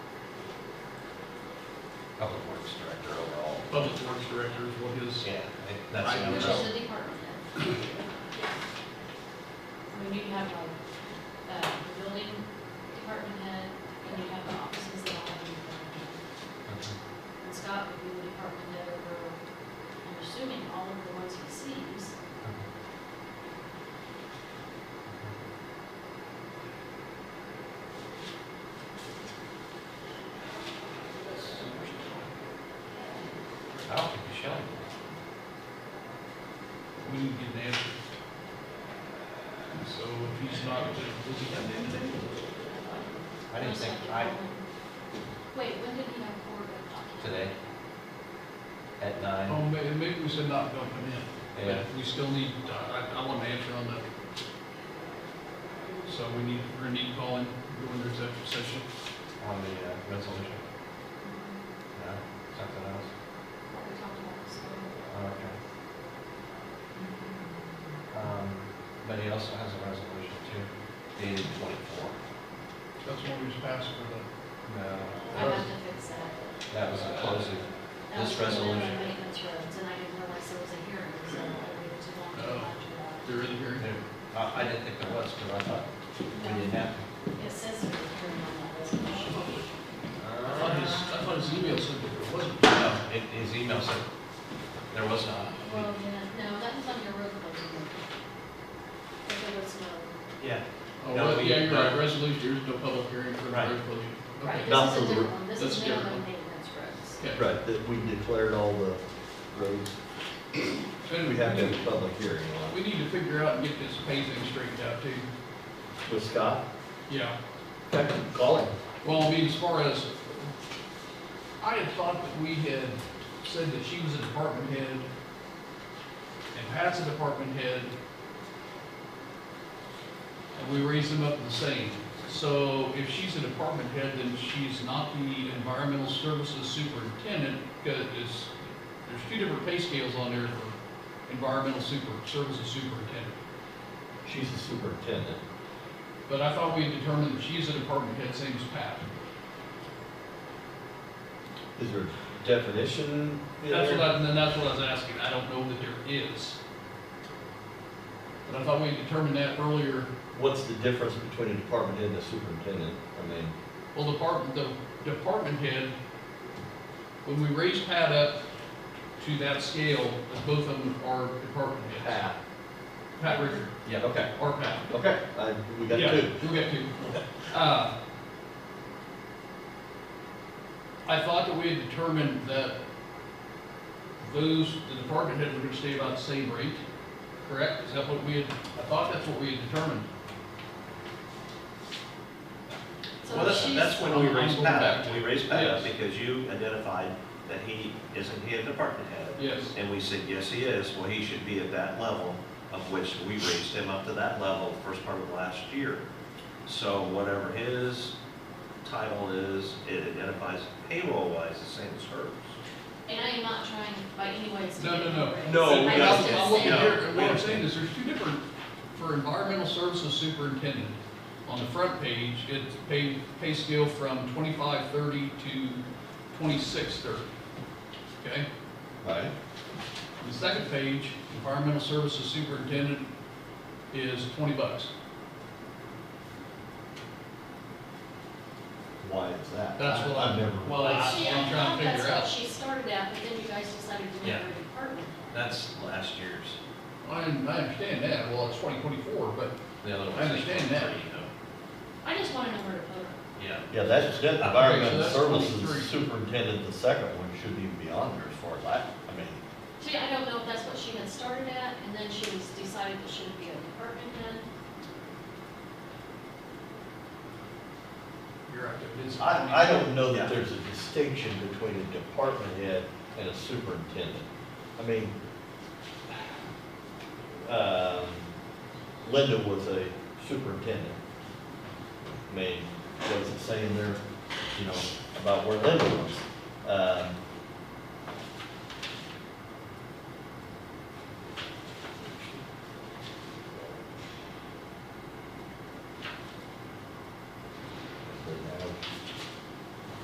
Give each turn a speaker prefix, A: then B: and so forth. A: public works director overall.
B: Public Works Director is what his,
A: Yeah, I- that's the
B: Right.
A: number.
C: Which is the department head. When you have like, uh, the building department head, and you have the offices that all have a department head. And Scott would be the department head over, I'm assuming, all of the ones he sees.
A: I don't think you should.
B: we need to get an answer. So if he's not, does he have an individual?
A: I didn't
C: Most
A: think,
C: likely
A: I,
C: Colin. Wait, when did he have court of document?
A: today, at nine,
B: Oh, maybe, maybe we said not dump him in.
A: Yeah.
B: But We still need, I, I- I want an answer on that. So we need, we're gonna need to call in, go into executive session.
A: on the uh, resolution,
C: Mhm.
A: no, something else,
C: What we talked about this
A: Oh,
C: morning.
A: okay. Um, but he also has a resolution too, dated twenty-four.
B: That's what we just passed for the,
A: No,
C: I have to fix that.
A: that was a closing,
C: That
A: This
C: was the middle of
A: resolution.
C: Maintenance roads, and I didn't realize there was a hearing, so I waited too long to
B: Oh.
C: watch that.
B: there is a hearing.
A: I, I didn't think there was, because I thought we didn't have. to.
C: It says it was turned on that resolution.
B: I thought
C: Uh,
B: his, I thought his email said that there wasn't.
A: No, it, his email said there was not.
C: Well, yeah, no, that was on your road closing. But there was no,
A: Yeah.
B: Oh,
A: No,
B: well,
A: we-
B: yeah, you're right,
A: no.
B: resolution, there's no public hearing for the
A: Right.
B: resolution.
C: right,
B: Okay.
A: Not
C: this is a
D: for the-
C: different one, this
B: that's
C: is
B: a
C: now
B: different one.
C: maintenance roads.
B: Okay.
D: Right, that we declared all the roads.
B: So anyway,
D: We have to have a public hearing on
B: We need to figure out and get this phasing straightened out too.
D: it. With Scott?
B: Yeah.
D: Call him.
B: Well, I mean, as far as, I had thought that we had said that she was a department head and Pat's a department head. And we raised them up the same. So if she's a department head, then she's not the environmental services superintendent because it's, there's two different pay scales on there for environmental super, services superintendent.
D: She's the superintendent.
B: But I thought we had determined that she's a department head, same as Pat.
D: Is there definition in
B: That's what
D: there?
B: I, and that's what I was asking, I don't know that there is. But I thought we determined that earlier,
D: What's the difference between a department head and a superintendent? I mean,
B: well, department, the department head, when we raised Pat up to that scale, as both of them are department heads.
D: Pat.
B: Pat Ricker,
A: Yeah,
D: Okay,
B: or Pat.
D: okay, I, we got
B: Yeah,
D: two.
B: We got two. Uh, I thought that we had determined that those, the department head were gonna stay about the same rate, correct? Is that what we had, I thought that's what we had determined.
C: So
E: Well, that's,
C: she's-
E: that's when we
B: I'm- I'm
E: raised
B: going
E: Pat
B: back
E: up,
B: to-
E: we raised Pat up
B: Yes.
E: because you identified that he, isn't he a department head?
B: Yes.
E: And we said, yes, he is, well, he should be at that level, of which we raised him up to that level first part of last year. So whatever his title is, it identifies payroll-wise the same as hers.
C: And I am not trying by any ways to.
B: No,
C: get
B: no, no.
C: it.
D: No, we
C: I
D: got
C: was
D: it.
C: just
B: I'm looking
E: Yeah.
C: saying-
B: here, and what I'm saying is there's two different, for environmental services superintendent, on the front page, it's pay, pay scale from twenty-five thirty to twenty-six thirty. Okay?
D: Right.
B: On The second page, environmental services superintendent is twenty bucks.
D: Why is that?
B: That's what I'm,
D: I've never.
B: well, that's
C: She,
B: what
C: I
B: I'm trying
C: thought
B: to
C: Oh, that's
B: figure
C: what
B: out.
C: she started at, but then you guys decided to make
E: Yeah.
C: her a department. head.
E: That's last year's.
B: I, I understand that, well, it's twenty twenty-four, but
A: the other one.
B: I understand that.
C: I just wanna know where to put her.
E: Yeah.
D: Yeah, that's, that
B: Okay, so
D: environmental
B: that's
D: services
B: 23.
D: superintendent, the second one shouldn't even be on there as far as I, I mean,
C: See, I don't know if that's what she had started at, and then she was decided that she would be a department head.
B: you're right, it is.
D: I, I don't know that
E: Yeah.
D: there's a distinction between a department head and a superintendent. I mean, um, Linda was a superintendent. I mean, what is it saying there, you know, about where Linda was? Um,